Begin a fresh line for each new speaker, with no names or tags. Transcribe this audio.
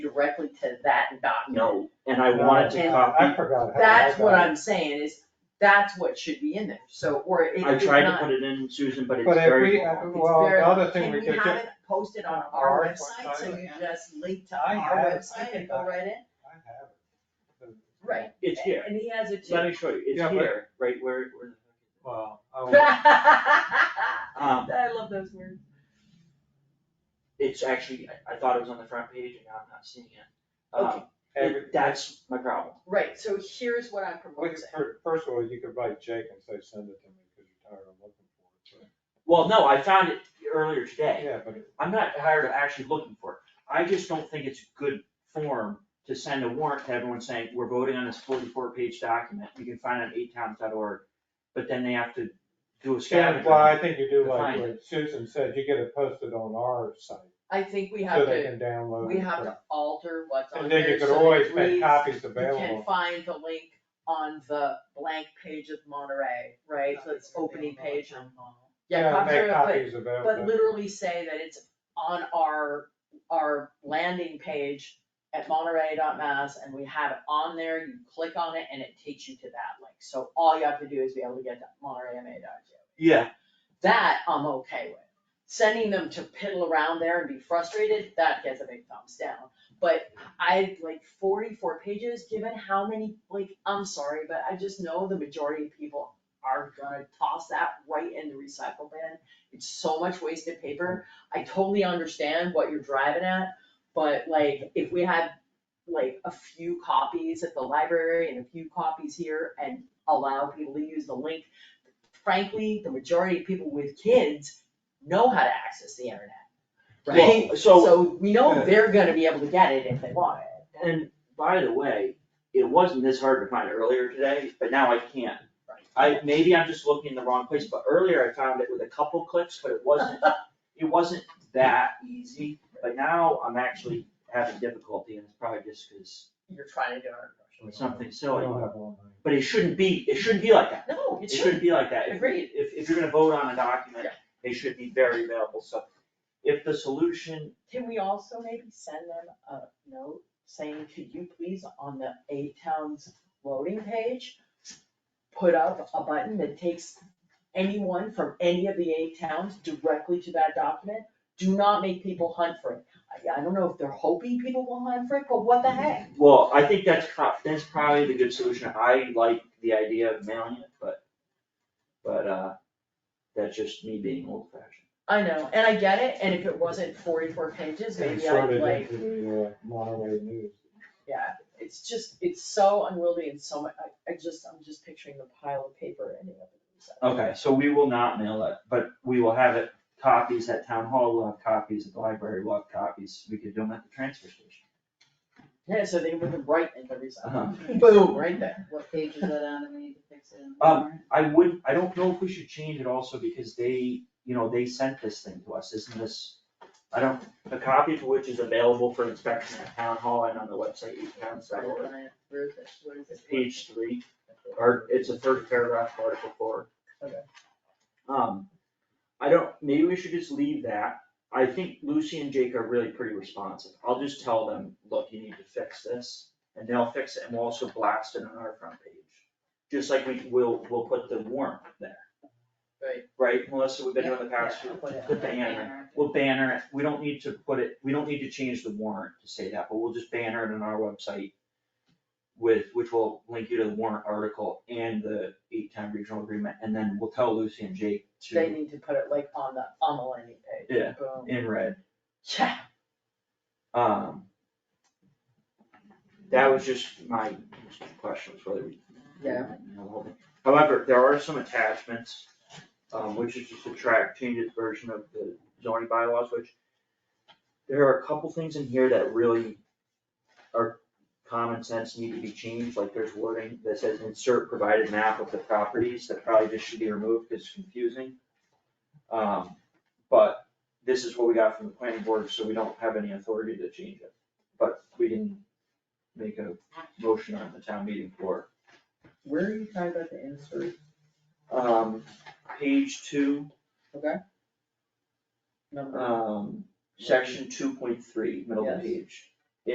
directly to that document.
No, and I wanted to
I
copy,
forgot. how
That's
I
what
got it.
I'm saying is, that's what should be in there, so, or it
I
it's
tried to
not,
put it in, Susan, but it's
But if
very
we,
long.
it's
well,
very-
the other thing we
Can we
could
have
get.
it posted on our
Our
website, so
website.
you just link to
I
our
have it.
website and go right in?
I have it.
Right.
It's here,
And he has it
let
too.
me show you, it's
Yeah, but-
here, right where, where.
Well, I was,
I
Um,
love those words.
it's actually, I, I thought it was on the front page and now I'm not seeing it. Um,
every,
it- that's my problem.
Right, so here's what I'm
we could-
proposing.
fir- first of all, you could write Jake and say, send it to me, because you're tired of looking for it, so.
Well, no, I found it earlier today.
Yeah, but it-
I'm not tired of actually looking for it. I just don't think it's good form to send a warrant to everyone saying, we're voting on this forty-four page document, you can find it on eighttimes.org. But then they have to do a scavenger.
yeah, well, I think you do like
Define
what Susan said, you get it posted on our site,
I think we
so
have
they
to,
can download it.
we have
for-
to alter what's on
And then
there,
you could
so that
always
it
make
reads-
copies
You can
available.
find the link on the blank page of Monterey, right, so it's opening page. Yeah, copies
Make
are- but-
copies available.
But literally say that it's on our, our landing page at monterey.mass and we have it on there, you click on it and it takes you to that link. So all you have to do is be able to get to montereyma.gov.
Yeah,
That I'm okay with. Sending them to piddle around there and be frustrated, that gets a big thumbs down. But I, like forty-four pages, given how many, like, I'm sorry, but I just know the majority of people are gonna toss that right in the recycle bin. It's so much wasted paper. I totally understand what you're driving at, but like, if we had like a few copies at the library and a few copies here and allow people to use the link, frankly, the majority of people with kids know how to access the internet, right?
well, so.
So we know they're gonna be able to get it if they want it.
And by the way, it wasn't this hard to find earlier today, but now I can't.
Right.
I, maybe I'm just looking in the wrong place, but earlier I found it with a couple clicks, but it wasn't, it wasn't that easy. But now I'm actually having difficulty and it's probably just because
You're trying to do it.
it's something
We
silly.
don't have one.
But it shouldn't be, it shouldn't be like that.
No,
It
it should,
shouldn't be like that. If-
Agreed.
If, if you're gonna vote on a document,
Yeah.
it should be very available. So if the solution
Can we also maybe send them a note saying, could you please, on the A Town's voting page, put up a button that takes anyone from any of the A Towns directly to that document? Do not make people hunt for it. I, I don't know if they're hoping people will hunt for it, but what the
Mm-hmm.
heck?
Well, I think that's pro- that's probably the good solution, I like the idea of mailing it, but, but, uh, that's just me being old fashioned.
I know, and I get it, and if it wasn't forty-four pages, maybe I'd
Inserted
like,
into the, uh, Monterey News.
yeah, it's just, it's so unwieldy and so much, I, I just, I'm just picturing the pile of paper ending up in the recycle.
Okay, so we will not mail it, but we will have it, copies at town hall, we'll have copies at the library, we'll have copies, we could do them at the transfer station.
Yeah, so they would write in the
Uh-huh.
resign. Boom, right there.
What page is that on that we need to fix it in?
Um, I would, I don't know if we should change it also, because they, you know, they sent this thing to us, isn't this, I don't, a copy of which is available for inspection at town hall and on the website, you can, so,
Where is it? What is it?
page three. or it's the third paragraph, of article four.
Okay.
Um, I don't, maybe we should just leave that, I think Lucy and Jake are really pretty responsive, I'll just tell them, look, you need to fix this, and they'll fix it, and we'll also blast it on our front page. Just like we will, we'll put the warrant there.
Right.
Right, Melissa, we've been doing the past few,
Yeah, put it
the
on there.
banner, we'll banner it, we don't need to put it, we don't need to change the warrant to say that, but we'll just banner it on our website with, which will link you to the warrant article and the eight-time regional agreement, and then we'll tell Lucy and Jake
They
to,
need to put it like on the, on the landing page.
Yeah.
Boom.
in red.
Yeah,
Um, that was just my question, was whether we.
Yeah.
you know, the whole thing. However, there are some attachments, um, which is just a track changes version of the zoning bylaws, which there are a couple things in here that really are common sense need to be changed, like there's wording that says insert provided map of the properties, that probably just should be removed, 'cause it's confusing. Um, but this is what we got from the planning board, so we don't have any authority to change it, but we can make a motion on the town meeting floor
where are you talking about the insert?
um, page two,
Number,
um, section two point three, middle of the
Yes.
page.